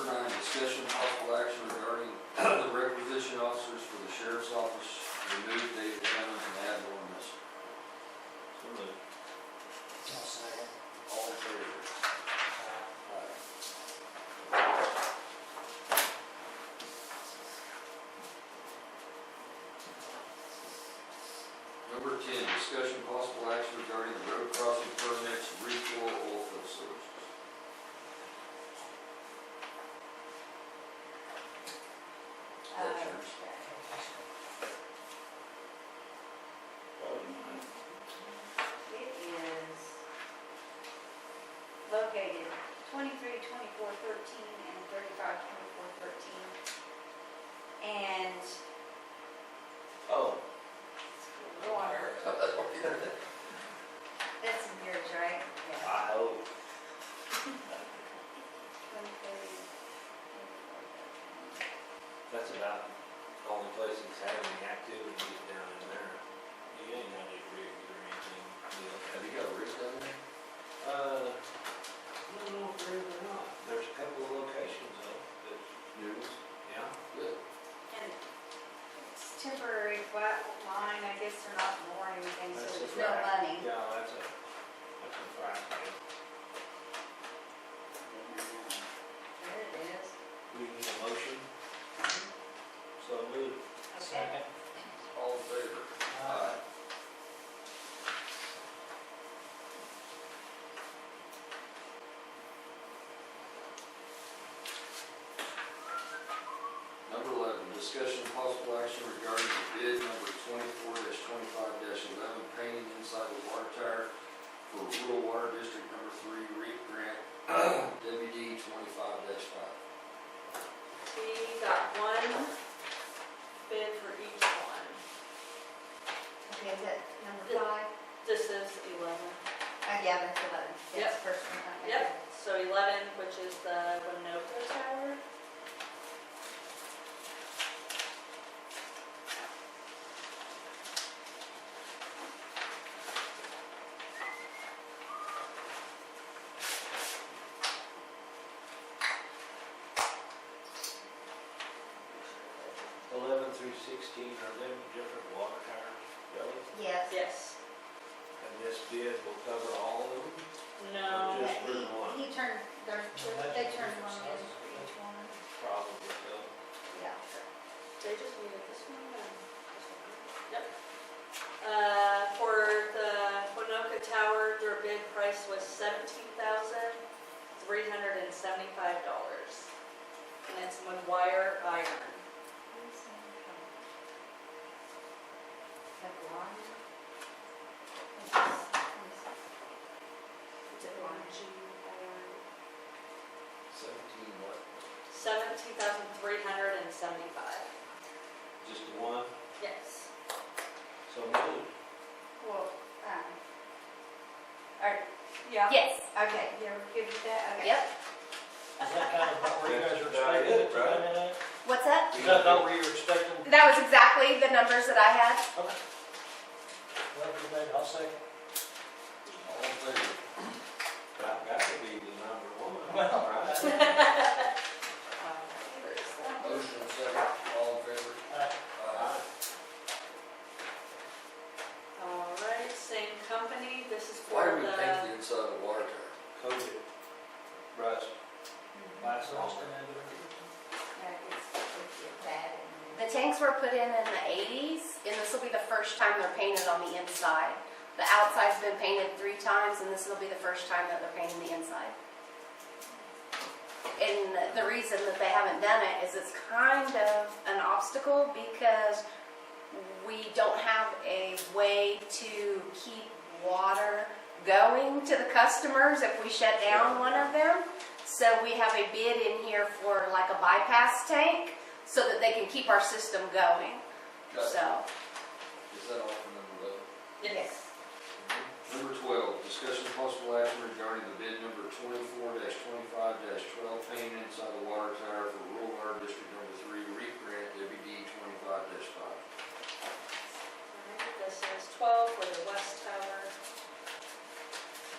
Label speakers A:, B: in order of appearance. A: session, possible action regarding the requisition officers for the sheriff's office, remove David Cummings and add Lauren Mitchell.
B: Uh,
C: So moved.
A: All in favor? Number ten, discussion possible action regarding the road crossing permits, refill oil field services. That's
B: Uh,
A: yours.
B: It is located twenty-three, twenty-four, thirteen, and thirty-five, twenty-four, thirteen. And
C: Oh,
B: water, that's in yours, right? Yeah.
C: I hope.
B: 23,
C: That's about the only place that's having the activity is down in there. You ain't got any rig or anything, you know.
A: Have you got a rig down there?
C: Uh, I don't know if there is or not. There's a couple of locations though, that,
A: Yes.
C: yeah.
A: Good.
B: And it's temporary flat line, I guess they're not more anything, so
C: That's a
B: there's no
C: fact.
B: money.
C: Yeah, that's a, that's a fact.
B: There it is.
C: We need a motion, so move.
B: Okay.
A: All in favor? Aye. Number eleven, discussion of possible action regarding the bid number twenty-four twenty-five eleven, painting inside the water tower for rural water district number three, REAP grant, WD twenty-five five.
D: We got one bid for each one.
B: Okay, is that number five?
D: This is eleven.
B: Uh, yeah, that's eleven. That's
D: Yep.
B: first one. okay.
D: Yep, so eleven, which is the Winoka Tower.
C: Eleven through sixteen are them different water towers, really?
B: Yes.
D: Yes.
C: And this bid will cover all of them?
D: No,
C: Just
B: But he-
C: for one.
B: He turned, they're, they're- they turned one in for each one.
C: Probably so.
B: Yeah.
D: they just needed this one and this one. Yep. Uh, for the Winoka Tower, their bid price was seventeen thousand, three hundred and seventy-five dollars. And it's one wire iron.
B: The blonde.
D: It's a bungee iron.
A: Seventeen what?
D: Seventeen thousand three hundred and seventy-five.
C: Just the one,
D: Yes.
C: so move.
B: Well, um, or,
D: Yeah.
B: yes, okay, you're good with that? Okay.
D: Yep.
E: Is that kind of about where you guys are expecting it to come in at?
F: What's that?
E: Is that about where you were expecting?
F: That was exactly the numbers that I had.
E: Well, debate, I'll second.
A: All in favor?
C: That, that would be the number one,
E: Well,
C: right?
A: Motion and second, all in favor? Uh,
E: Aye.
A: Aye.
D: All right, same company, this is
A: Why
D: for
A: do we paint
D: the,
A: the inside of the water tower?
C: Coated, rust, last
E: Austin,
C: longer.
E: and
B: Yeah, it's, it's get that
F: The
B: and.
F: tanks were put in in the 80s, and this will be the first time they're painted on the inside. The outside's been painted three times, and this will be the first time that they're painting the inside. And the reason that they haven't done it is it's kind of an obstacle because we don't have a way to keep water going to the customers if we shut down one of them. So we have a bid in here for like a bypass tank so that they can keep our system going.
A: Is
F: So,
A: that all for number eleven?
D: yes,
A: Number twelve, discussion